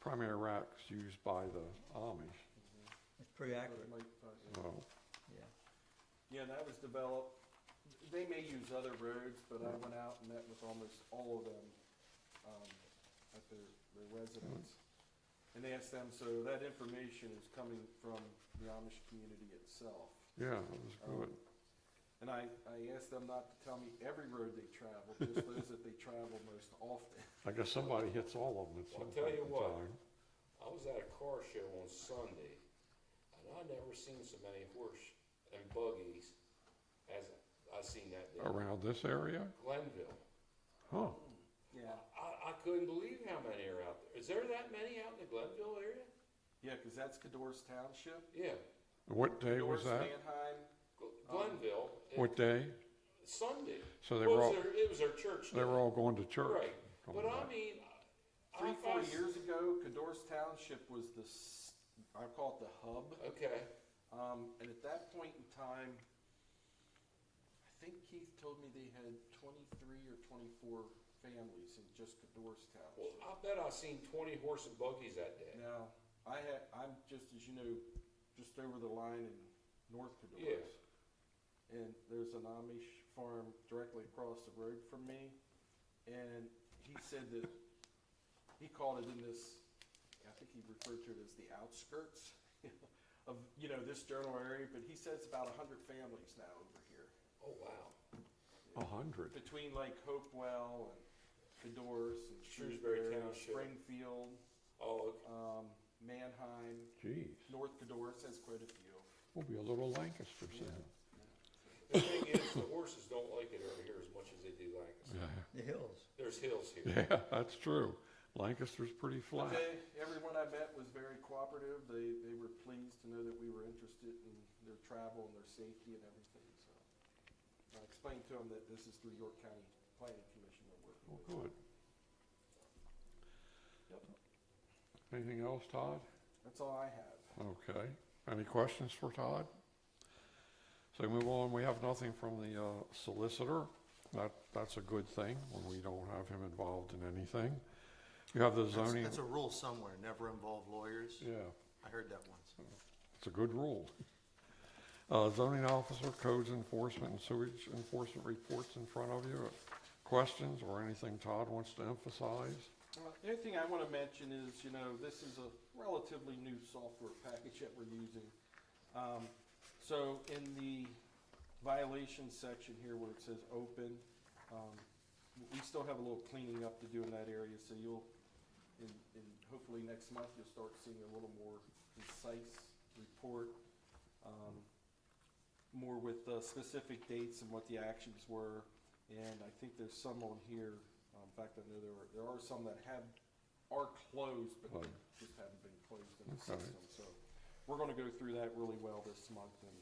primary racks used by the Amish, It's pretty accurate, so. yeah. Yeah, that was developed, they may use other roads, but I went out and met with almost all of them, um, at their, their residence. And asked them, so that information is coming from the Amish community itself. Yeah, it was good. And I, I asked them not to tell me every road they travel, just those that they travel most often. I guess somebody hits all of them at some point I'll tell you in what. time. I was at a car show on Sunday, and I never seen so many horse and buggies as I seen that day. Around this area? Glenville. Huh, Yeah. I, I couldn't believe how many are out there. Is there that many out in the Glenville area? Yeah, cause that's Cador's Township. Yeah, what day was Cador's, that? Manheim, Gl- Um, Glenville. it- What day? Sunday. So they Well, were all, it was their, it was their church. they were day. all going to church. Oh, Right, coming but I back. mean, I- Three, I four find- years ago, Cador's Township was the, s- I call it the hub. Okay, Um, and at that point in time, I think Keith told me they had twenty-three or twenty-four families in just Cador's well, Township. I bet I seen twenty horse and buggies that day. Now, I had, I'm just, as you know, just over the line in North Cador's. Yes. And there's an Amish farm directly across the road from me, and he said that, he called it in this, I think he referred to it as the outskirts of, you know, this general area, but he says about a hundred families now over here, Oh, wow. A hundred. between like Hopewell and Cador's and Shrewsbury Shrewsbury, Township. Springfield, Oh, okay. um, Manheim, Geez, North Cador's has quite a few. we'll be a little Lancaster soon. The thing is, the horses don't like it over here as much as they do Lancaster. The hills, There's hills here. Yeah, that's true. Lancaster's pretty But flat. they, everyone I met was very cooperative. They, they were pleased to know that we were interested in their travel and their safety and everything, so. I explained to them that this is through York County Planning Commission that we're Well, working with. good. Anything else, Todd? That's all I have. Okay. Any questions for Todd? So move on, we have nothing from the uh, solicitor. That, that's a good thing when we don't have him involved in anything. You have the That's, zoning, that's a rule somewhere, never involve lawyers. yeah, I heard that once. it's a good rule. Uh, Zoning officer, codes enforcement, and sewage enforcement reports in front of you. Questions or anything Todd wants to emphasize? Well, The only thing I want to mention is, you know, this is a relatively new software package that we're using. Um, So in the violation section here where it says open, um, w- we still have a little cleaning up to do in that area, so you'll, in, in hopefully next month, you'll start seeing a little more concise report. um, More with uh, specific dates and what the actions were, and I think there's some on here, um, in fact, I know there are, there are some that have, are closed, but Right. just haven't been closed in the Okay. system, so. We're gonna go through that really well this month and,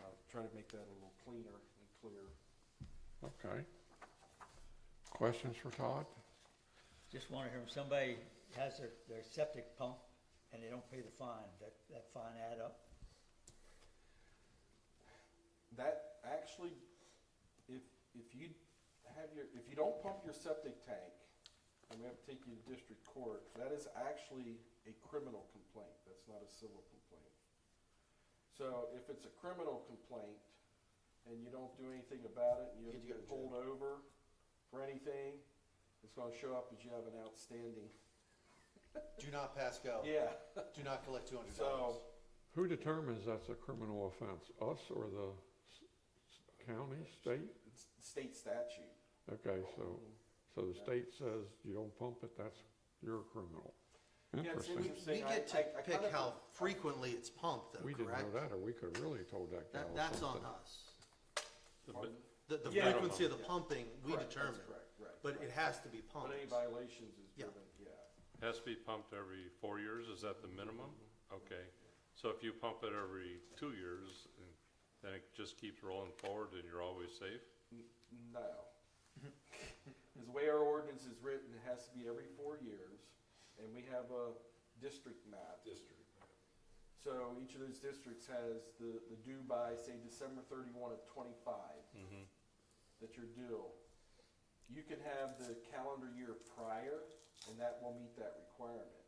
uh, try to make that a little cleaner and clearer. Okay. Questions for Todd? just wanna hear, if somebody has their, their septic pump and they don't pay the fine, that, that fine add up? That actually, if, if you have your, if you don't pump your septic tank, I'm gonna have to take you to district court, that is actually a criminal complaint, that's not a civil complaint. So if it's a criminal complaint and you don't do anything about it, and you Could you get go to jail? pulled over for anything, it's gonna show up as you have an outstanding, Do not pass go. yeah, Do not collect two hundred dollars. so. Who determines that's a criminal offense, us or the s- s- county, state? It's state statute. Mm-hmm. Okay, so, so the state says you don't pump it, that's, you're a criminal. it's Interesting. interesting. We Saying I- get I- to I pick kinda- how frequently it's pumped though, We didn't know correct? that, or we could have really told that gal That, that's on something. us. Pardon? The, the Yeah. frequency of the pumping, we Correct, that's determine, correct, right, but right. it has to be pumped. But any violations is Yeah. driven, yeah. Has to be pumped every four years, is that the minimum? Mm-hmm. Okay, so if you pump it every two years, and then it just keeps rolling forward and you're always safe? No. Because the way our ordinance is written, it has to be every four years, and we have a district map. District. So each of those districts has the, the due by, say, December thirty-one of twenty-five, that you're due. You can have the calendar year prior, and that will meet that requirement.